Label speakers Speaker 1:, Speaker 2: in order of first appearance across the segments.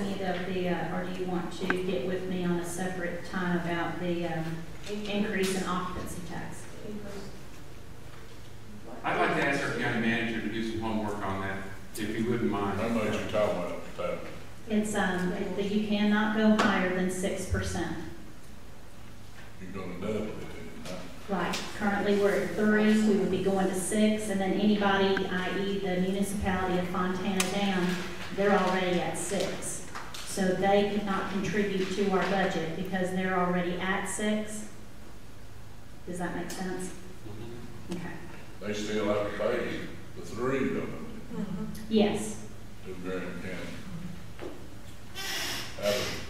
Speaker 1: of the, uh, or do you want to get with me on a separate time about the um, increase in occupancy tax?
Speaker 2: I'd like to ask our county manager to do some homework on that, if you wouldn't mind.
Speaker 3: I know what you're talking about, Pat.
Speaker 1: It's, um, that you cannot go higher than six percent.
Speaker 3: You're gonna double it, then, huh?
Speaker 1: Right, currently we're at three, we would be going to six, and then anybody, i.e. the municipality of Fontana down, they're already at six. So they could not contribute to our budget because they're already at six. Does that make sense?
Speaker 2: Mhm.
Speaker 1: Okay.
Speaker 3: They still have to pay the three of them
Speaker 1: Yes,
Speaker 3: to Graham County. Out of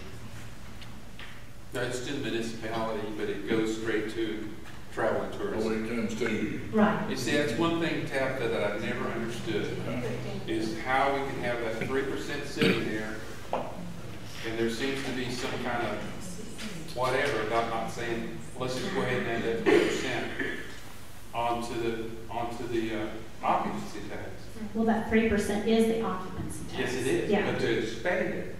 Speaker 2: No, it's to the municipality, but it goes straight to travel and
Speaker 3: Well,
Speaker 2: tourism.
Speaker 3: it comes to you.
Speaker 1: right,
Speaker 2: You see, that's one thing, Tabitha, that I've never understood,
Speaker 4: Mm-hmm.
Speaker 2: is how we can have that three percent sitting there, and there seems to be some kind of whatever, about not saying, let's just go ahead and add that three percent onto the, onto the uh, occupancy tax.
Speaker 1: well, that three percent is the occupancy tax.
Speaker 2: Yes, it is,
Speaker 1: Yeah,
Speaker 2: but to expand it,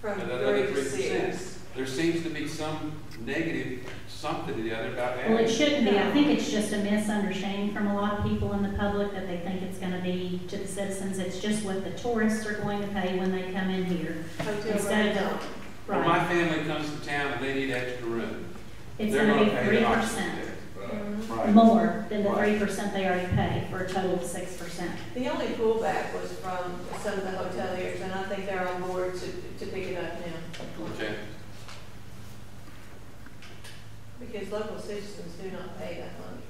Speaker 4: From
Speaker 2: another
Speaker 4: three
Speaker 2: three
Speaker 4: to
Speaker 2: percent,
Speaker 4: six.
Speaker 2: there seems to be some negative something or the other about
Speaker 1: well, it
Speaker 2: adding.
Speaker 1: shouldn't be, I think it's just a misunderstanding from a lot of people in the public that they think it's gonna be to the citizens, it's just what the tourists are going to pay when they come in here.
Speaker 4: Hotel
Speaker 1: Instead of
Speaker 4: room.
Speaker 2: When
Speaker 1: Right,
Speaker 2: my family comes to town and they need extra room,
Speaker 1: it's
Speaker 2: they're
Speaker 1: gonna
Speaker 2: gonna
Speaker 1: be
Speaker 2: pay
Speaker 1: three
Speaker 2: the occupancy
Speaker 1: percent
Speaker 3: Right.
Speaker 2: tax.
Speaker 4: Mhm.
Speaker 2: Right.
Speaker 1: more than the three
Speaker 2: Right.
Speaker 1: percent they already pay, for a total of six percent.
Speaker 4: The only pullback was from some of the hoteliers, and I think they're on board to, to pick it up now,
Speaker 2: Okay,
Speaker 4: because local citizens do not pay that money.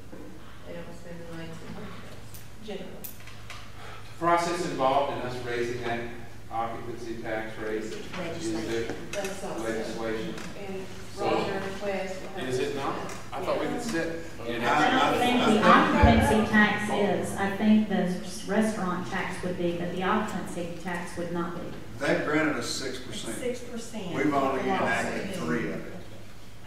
Speaker 4: They don't spend the money to, generally.
Speaker 2: the process involved in us raising that occupancy tax rate is the
Speaker 4: That's all.
Speaker 2: legislation.
Speaker 4: And
Speaker 2: So-
Speaker 4: Roger and Wes will have.
Speaker 2: Is it not? I thought we could set, you know.
Speaker 1: I don't think the occupancy tax is, I think the restaurant tax would be, but the occupancy tax would not be.
Speaker 5: They've granted us six percent.
Speaker 6: Six percent.
Speaker 5: We've only enacted three of it.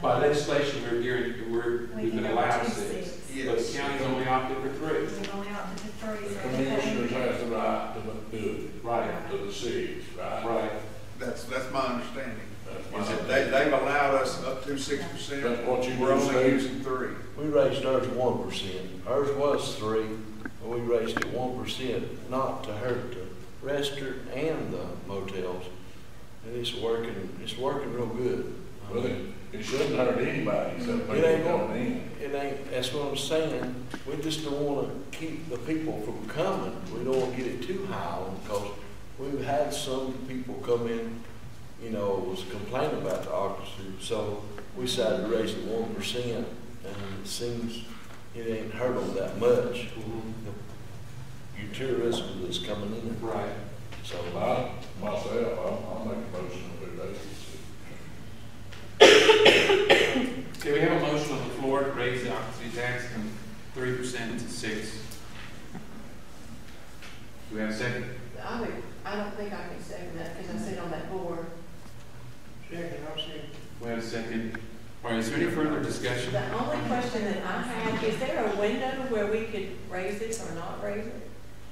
Speaker 2: By legislation, we're gearing, we're,
Speaker 6: We
Speaker 2: we've
Speaker 6: can
Speaker 2: been
Speaker 6: go
Speaker 2: allowed
Speaker 6: to
Speaker 2: six,
Speaker 6: six.
Speaker 2: but the
Speaker 5: Yes.
Speaker 2: county's only opted for three.
Speaker 6: We've only opted for three.
Speaker 3: The
Speaker 6: so
Speaker 3: commissioners has the right to do
Speaker 2: Right,
Speaker 3: it, to the cities, right?
Speaker 2: right.
Speaker 5: That's, that's my understanding.
Speaker 3: That's
Speaker 5: Is
Speaker 3: my-
Speaker 5: that they, they've allowed us up to six percent.
Speaker 3: That's what you
Speaker 5: We're only
Speaker 3: do, Steve.
Speaker 5: using three.
Speaker 7: We raised ours one percent. Ours was three, but we raised it one percent, not to hurt the restaurant and the motels. And it's working, it's working real good. I
Speaker 3: Well,
Speaker 7: mean,
Speaker 3: it, it shouldn't hurt anybody except
Speaker 7: It
Speaker 3: people
Speaker 7: ain't
Speaker 3: coming
Speaker 7: going,
Speaker 3: in.
Speaker 7: it ain't, that's what I'm saying. We just don't wanna keep the people from coming. We don't wanna get it too high because we've had some people come in, you know, was complaining about the occupancy. So we decided to raise it one percent and it seems it ain't hurt them that much.
Speaker 2: Mm-hmm.
Speaker 7: Your tourism that's coming in,
Speaker 2: Right.
Speaker 7: so.
Speaker 3: I, myself, I'll, I'll make a motion to do that.
Speaker 2: Okay, we have a motion on the floor to raise the occupancy tax from three percent to six. Do we have a second?
Speaker 4: I would, I don't think I can second that, because I sit on that board. Second, I'll second.
Speaker 2: We have a second. All right, is there any further discussion?
Speaker 4: The only question that I had, is there a window where we could raise it or not raise it?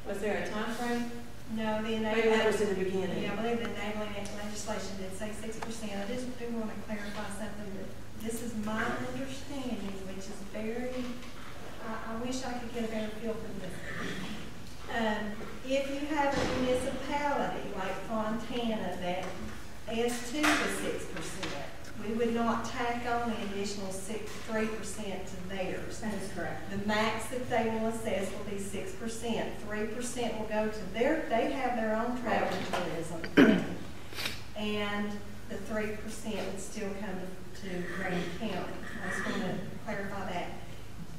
Speaker 4: Was there a time frame?
Speaker 6: No, the
Speaker 4: Maybe that was
Speaker 6: enabling,
Speaker 4: in the beginning.
Speaker 6: yeah, I believe the enabling legislation did say six percent. I just do want to clarify something, that this is my understanding, which is very, I, I wish I could get a better feel for this. Um, if you have a municipality like Fontana that adds to the six percent, we would not tack on an additional six, three percent to theirs.
Speaker 1: That is correct.
Speaker 6: The max that they will assess will be six percent. Three percent will go to their, they have their own travel and tourism. And the three percent would still come to Graham County. I just want to clarify that.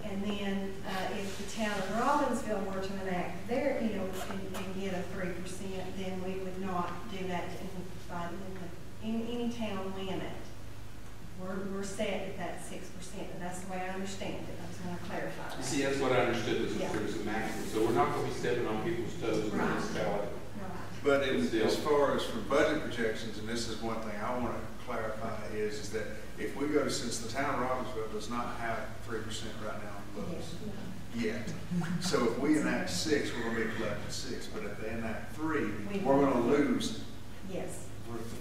Speaker 6: And then, uh, if the town of Robbinsville were to enact their, you know, and, and get a three percent, then we would not do that in, by, the- in any town limit we're, we're set at that six percent, and that's the way I understand it, I just want to clarify
Speaker 2: You
Speaker 6: that.
Speaker 2: see, that's what I understood, was
Speaker 6: Yeah.
Speaker 2: that there was a maximum, so we're not gonna be stepping on people's toes in the
Speaker 6: Right.
Speaker 2: municipality.
Speaker 6: Right.
Speaker 5: But as, as far as for budget projections, and this is one thing I want to clarify is, is that if we go to, since the town of Robbinsville does not have three percent right now on the books yet. So if we enact six, we're going to be collecting six, but if they enact three,
Speaker 6: We-
Speaker 5: we're going to lose
Speaker 6: Yes.
Speaker 5: we're-